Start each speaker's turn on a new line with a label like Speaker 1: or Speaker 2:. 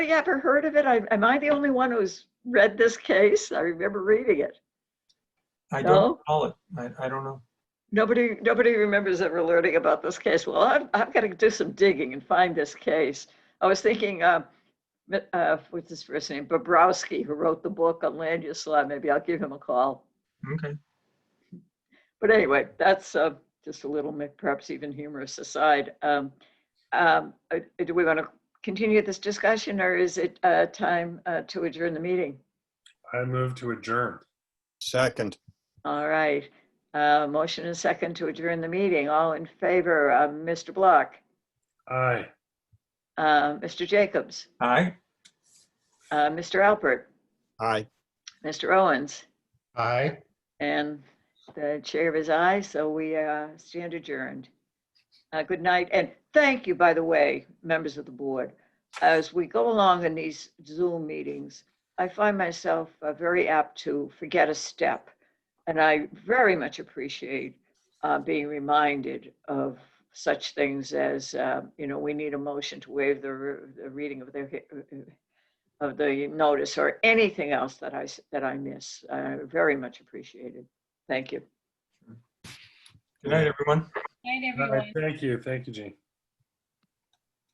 Speaker 1: ever heard of it? I- Am I the only one who's read this case? I remember reading it.
Speaker 2: I
Speaker 1: No?
Speaker 2: don't recall it. I, I don't know.
Speaker 1: Nobody, nobody remembers ever learning about this case. Well, I've, I've got to do some digging and find this case. I was thinking, uh, Mi- uh, what's his first name? Bobrowski, who wrote the book on land use law. Maybe I'll give him a call.
Speaker 2: Okay.
Speaker 1: But anyway, that's uh, just a little, mi- perhaps even humorous aside. Um, um, uh, Do we want to continue this discussion or is it uh, time uh, to adjourn the meeting?
Speaker 3: I move to adjourn.
Speaker 4: Second.
Speaker 1: All right. Uh, Motion and second to adjourn the meeting. All in favor, uh, Mr. Block,
Speaker 3: Aye.
Speaker 1: uh, Mr. Jacobs,
Speaker 2: Aye.
Speaker 1: uh, Mr. Alpert,
Speaker 4: Aye.
Speaker 1: Mr. Owens,
Speaker 3: Aye.
Speaker 1: and the chair is aye, so we uh, stand adjourned. Uh, Good night, and thank you, by the way, members of the board. As we go along in these Zoom meetings, I find myself uh, very apt to forget a step. And I very much appreciate uh, being reminded of such things as, uh, you know, we need a motion to waive the re- the reading of the, he- of the notice or anything else that I, s- that I miss. Uh, Very much appreciated. Thank you.
Speaker 2: Good night, everyone.
Speaker 5: Night, everyone.
Speaker 3: Thank you, thank you, Jean.